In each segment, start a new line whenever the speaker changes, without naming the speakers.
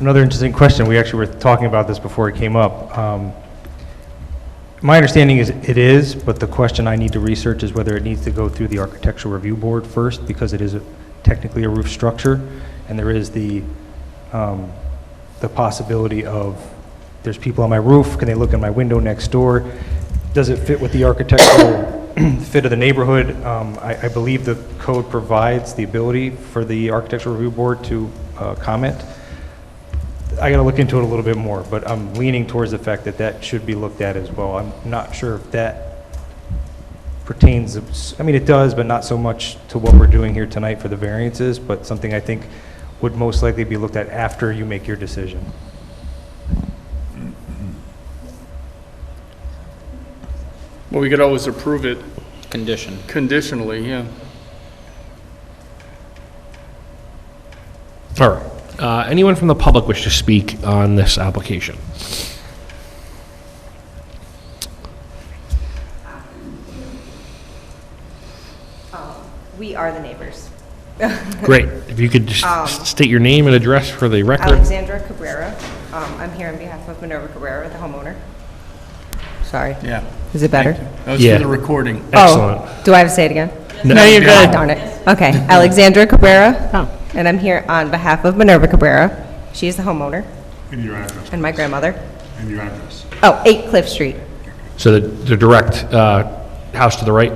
Another interesting question, we actually were talking about this before it came up. Um, My understanding is it is, but the question I need to research is whether it needs to go through the Architectural Review Board first, because it is a- technically a roof structure, and there is the, um, the possibility of, there's people on my roof, can they look in my window next door? Does it fit with the architectural fit of the neighborhood? Um, I, I believe the code provides the ability for the Architectural Review Board to uh, comment. I got to look into it a little bit more, but I'm leaning towards the fact that that should be looked at as well. I'm not sure if that pertains, I mean, it does, but not so much to what we're doing here tonight for the variances, but something I think would most likely be looked at after you make your decision.
Well, we could always approve it
Condition.
conditionally, yeah.
All right. Uh, Anyone from the public wish to speak on this application?
We are the neighbors.
Great. If you could just
Um,
s- state your name and address for the record.
Alexandra Cabrera. Um, I'm here on behalf of Minerva Cabrera, the homeowner. Sorry.
Yeah.
Is it better?
That was for
Yeah.
the recording.
Excellent.
Oh, Do I have to say it again?
No.
No, you're good. Darn it. Okay. Alexandra Cabrera. And I'm here on behalf of Minerva Cabrera. She is the homeowner
And your address,
and my grandmother.
and your address.
Oh, 8 Cliff Street.
So the the direct uh, house to the right?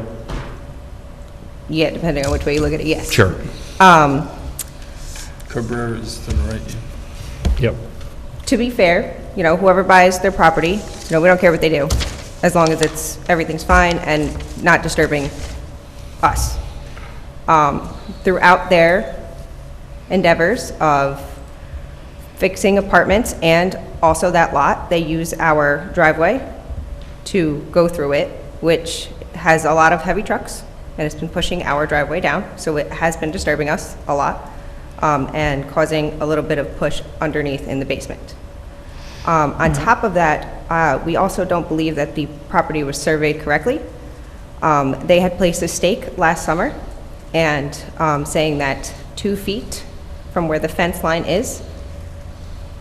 Yeah, depending on which way you look at it, yes.
Sure.
Um,
Cabrera is the right, yeah.
Yep.
to be fair, you know, whoever buys their property, you know, we don't care what they do, as long as it's, everything's fine and not disturbing us. Um, Throughout their endeavors of fixing apartments and also that lot, they use our driveway to go through it, which has a lot of heavy trucks, and it's been pushing our driveway down, so it has been disturbing us a lot, um, and causing a little bit of push underneath in the basement. Um, On top of that, uh, we also don't believe that the property was surveyed correctly. Um, They had placed a stake last summer, and um, saying that two feet from where the fence line is,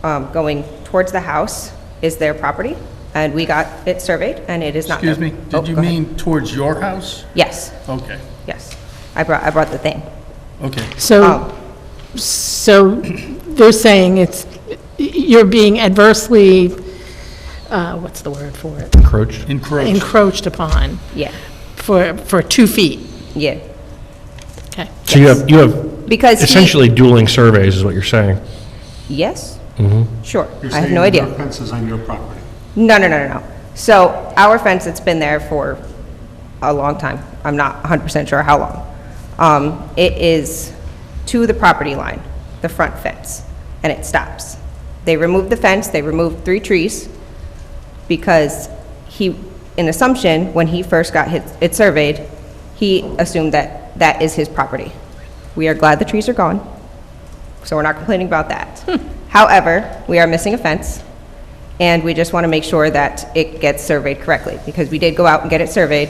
um, going towards the house is their property, and we got it surveyed, and it is not.
Excuse me,
Oh,
did you
go ahead.
mean towards your house?
Yes,
Okay,
yes. I brought, I brought the thing.
okay.
Um,
So, so they're saying it's, you're being adversely, uh, what's the word for it?
Encroached?
Encroach.
Encroached upon
Yeah,
for, for two feet.
yeah.
Okay.
So you have, you have
Because he-
essentially dueling surveys is what you're saying.
Yes? Sure,
You're
I have
saying
no idea.
Your fence is on your property.
No, no, no, no, no. So our fence, it's been there for a long time. I'm not 100% sure how long. Um, It is to the property line, the front fence, and it stops. They removed the fence, they removed three trees because he, in assumption, when he first got his- it surveyed, he assumed that that is his property. We are glad the trees are gone, so we're not complaining about that. However, we are missing a fence, and we just want to make sure that it gets surveyed correctly, because we did go out and get it surveyed,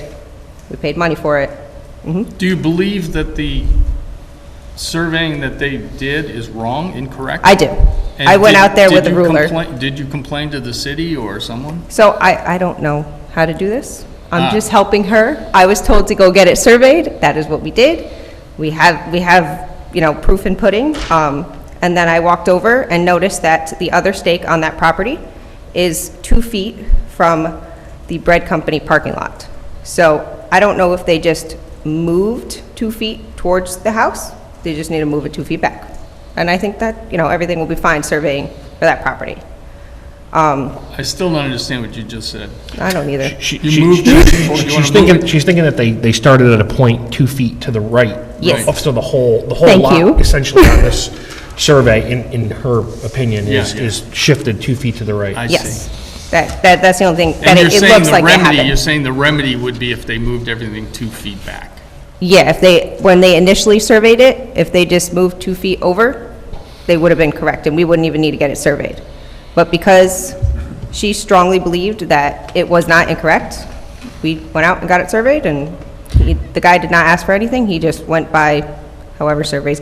we paid money for it. Mhm.
Do you believe that the surveying that they did is wrong, incorrect?
I do.
And
I went
did-
out there
did
with a
you
ruler.
complain- Did you complain to the city or someone?
So I, I don't know how to do this.
Ah.
I'm just helping her. I was told to go get it surveyed, that is what we did. We have, we have, you know, proof and pudding. Um, And then I walked over and noticed that the other stake on that property is two feet from the bread company parking lot. So I don't know if they just moved two feet towards the house, they just need to move it two feet back. And I think that, you know, everything will be fine surveying for that property. Um,
I still don't understand what you just said.
I don't either.
She-
You
she-
moved
she-
it?
she-
You wanna
She's
move
thinking,
it?
she's thinking that they, they started at a point two feet to the right.
Yes.
Of- So the whole, the whole
Thank you.
lot essentially on this survey, in, in her opinion, is,
Yeah, yeah.
is shifted two feet to the
I
right.
see.
Yes. That, that, that's the only thing, that
And you're
it it
saying
looks
the
like that
remedy, you're
happened.
saying the remedy would be if they moved everything two feet back.
Yeah, if they, when they initially surveyed it, if they just moved two feet over, they would have been correct, and we wouldn't even need to get it surveyed. But because she strongly believed that it was not incorrect, we went out and got it surveyed, and he- the guy did not ask for anything, he just went by however surveys go.